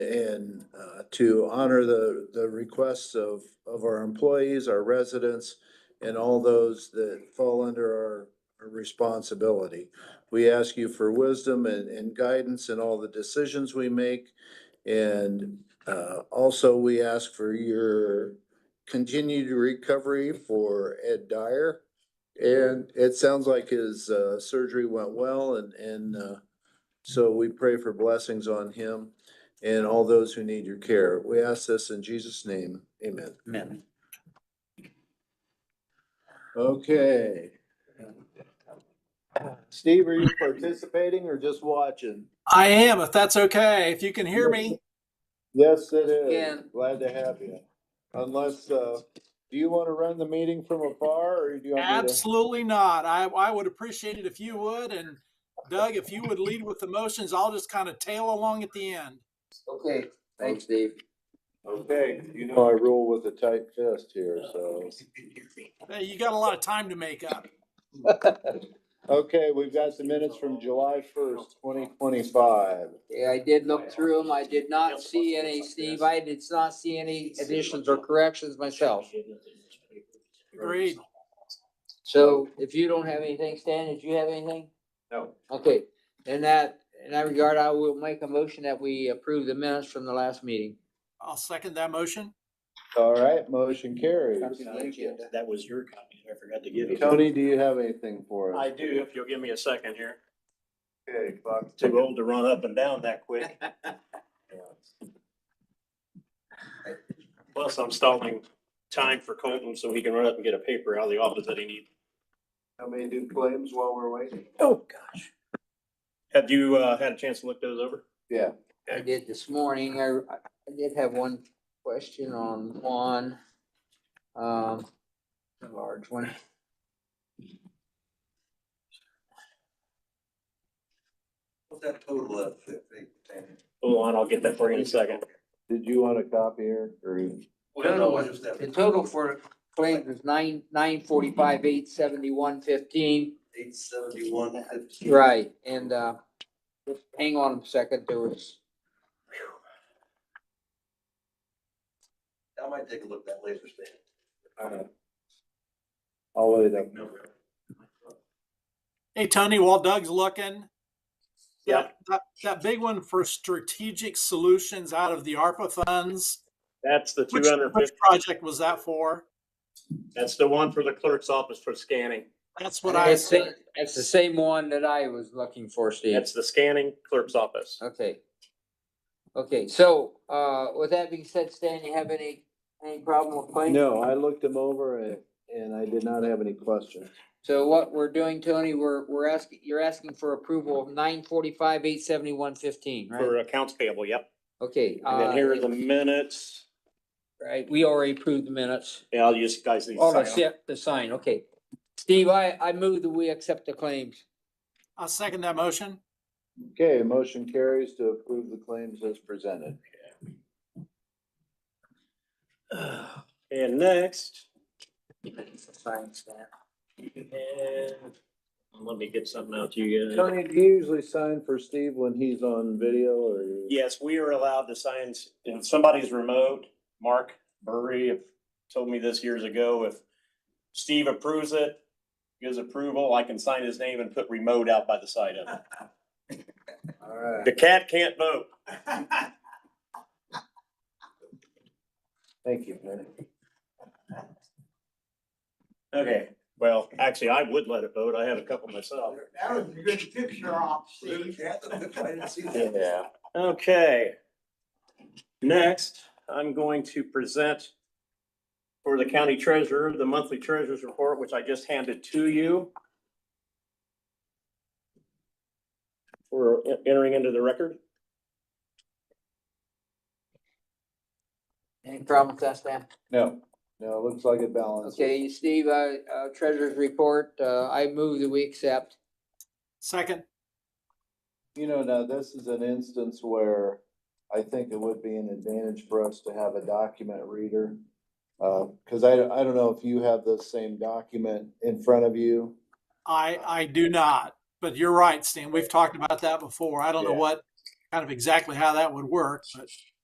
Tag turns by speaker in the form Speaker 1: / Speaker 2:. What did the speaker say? Speaker 1: and uh, to honor the, the requests of, of our employees, our residents, and all those that fall under our our responsibility. We ask you for wisdom and, and guidance in all the decisions we make. And uh, also, we ask for your continued recovery for Ed Dyer. And it sounds like his uh, surgery went well and, and uh, so we pray for blessings on him and all those who need your care. We ask this in Jesus' name. Amen.
Speaker 2: Mm-hmm.
Speaker 3: Amen.
Speaker 1: Okay. Steve, are you participating or just watching?
Speaker 4: I am, if that's okay, if you can hear me.
Speaker 1: Yes, it is.
Speaker 3: Again.
Speaker 1: Glad to have you. Unless, uh, do you want to run the meeting from afar or do you want me to?
Speaker 4: Absolutely not. I, I would appreciate it if you would. And Doug, if you would lead with the motions, I'll just kind of tail along at the end.
Speaker 3: Okay, thanks, Dave.
Speaker 1: Okay, you know I rule with a tight fist here, so.
Speaker 4: Hey, you got a lot of time to make up.
Speaker 1: Okay, we've got the minutes from July first, twenty twenty-five.
Speaker 3: Yeah, I did look through them. I did not see any, Steve, I did not see any additions or corrections myself.
Speaker 4: Agreed.
Speaker 3: So if you don't have anything, Stan, did you have anything?
Speaker 1: No.
Speaker 3: Okay, in that, in that regard, I will make a motion that we approve the minutes from the last meeting.
Speaker 4: I'll second that motion.
Speaker 1: All right, motion carries.
Speaker 5: That was your copy. I forgot to give you.
Speaker 1: Tony, do you have anything for us?
Speaker 5: I do, if you'll give me a second here.
Speaker 1: Okay, Buck.
Speaker 5: Too old to run up and down that quick. Plus, I'm stalling time for Colton so he can run up and get a paper out of the office that he needs.
Speaker 1: How many do claims while we're waiting?
Speaker 5: Oh, gosh. Have you, uh, had a chance to look those over?
Speaker 1: Yeah.
Speaker 3: I did this morning, I, I did have one question on one. Um, a large one.
Speaker 2: What's that total of that they obtained?
Speaker 5: Hold on, I'll get that for you in a second.
Speaker 1: Did you want a copier or?
Speaker 2: Well, no, I just have
Speaker 3: The total for claims is nine, nine forty-five, eight seventy-one fifteen.
Speaker 2: eight seventy-one fifteen.
Speaker 3: Right, and, uh, hang on a second, there was,
Speaker 2: I might take a look at that laser stand.
Speaker 1: I'll wait up.
Speaker 2: No.
Speaker 4: Hey, Tony, while Doug's looking.
Speaker 5: Yeah.
Speaker 4: that- That, that big one for strategic solutions out of the ARPA funds.
Speaker 5: That's the
Speaker 4: Which,
Speaker 5: two hundred
Speaker 4: which
Speaker 5: fifty,
Speaker 4: project was that for?
Speaker 5: that's the one for the clerk's office for scanning.
Speaker 4: That's what I
Speaker 3: that's,
Speaker 4: said.
Speaker 3: the- that's the same one that I was looking for, Steve.
Speaker 5: That's the scanning clerk's office.
Speaker 3: Okay. Okay, so, uh, with that being said, Stan, you have any, any problem with claims?
Speaker 1: No, I looked them over and, and I did not have any questions.
Speaker 3: So what we're doing, Tony, we're, we're asking, you're asking for approval of nine forty-five, eight seventy-one fifteen, right?
Speaker 5: For accounts payable, yep.
Speaker 3: Okay,
Speaker 5: And then here are
Speaker 3: uh,
Speaker 5: the minutes.
Speaker 3: right, we already approved the minutes.
Speaker 5: Yeah, I'll use guys. these
Speaker 3: Oh,
Speaker 5: sign
Speaker 3: that's it, the sign, okay. Steve, I, I move that we accept the claims.
Speaker 4: I'll second that motion.
Speaker 1: Okay, motion carries to approve the claims as presented.
Speaker 5: off. And next.
Speaker 3: Sign, Stan.
Speaker 5: and Let me get something out to you. guys.
Speaker 1: Tony, do you usually sign for Steve when he's on video or? you-
Speaker 5: Yes, we are allowed to sign, if somebody's remote, Mark Burry have told me this years ago, if Steve approves it, gives approval, I can sign his name and put remote out by the side of it.
Speaker 1: All right,
Speaker 5: The cat can't vote.
Speaker 1: thank you, Tony.
Speaker 5: Okay, well, actually, I would let it vote. I had a couple myself.
Speaker 2: That was a good picture op, Steve. I didn't see that.
Speaker 5: Yeah. Okay. Next, I'm going to present for the county treasurer, the monthly treasurer's report, which I just handed to you. We're entering into the record.
Speaker 3: Any problem with that, Stan?
Speaker 1: No, no, it looks like it balances.
Speaker 3: Okay, Steve, uh, uh, treasurer's report, uh, I move that we accept.
Speaker 4: Second.
Speaker 1: You know, now this is an instance where I think it would be an advantage for us to have a document reader. Uh, cause I, I don't know if you have the same document in front of you.
Speaker 4: I, I do not, but you're right, Stan. We've talked about that before. I don't know
Speaker 1: Yeah.
Speaker 4: what kind of exactly how that would work, but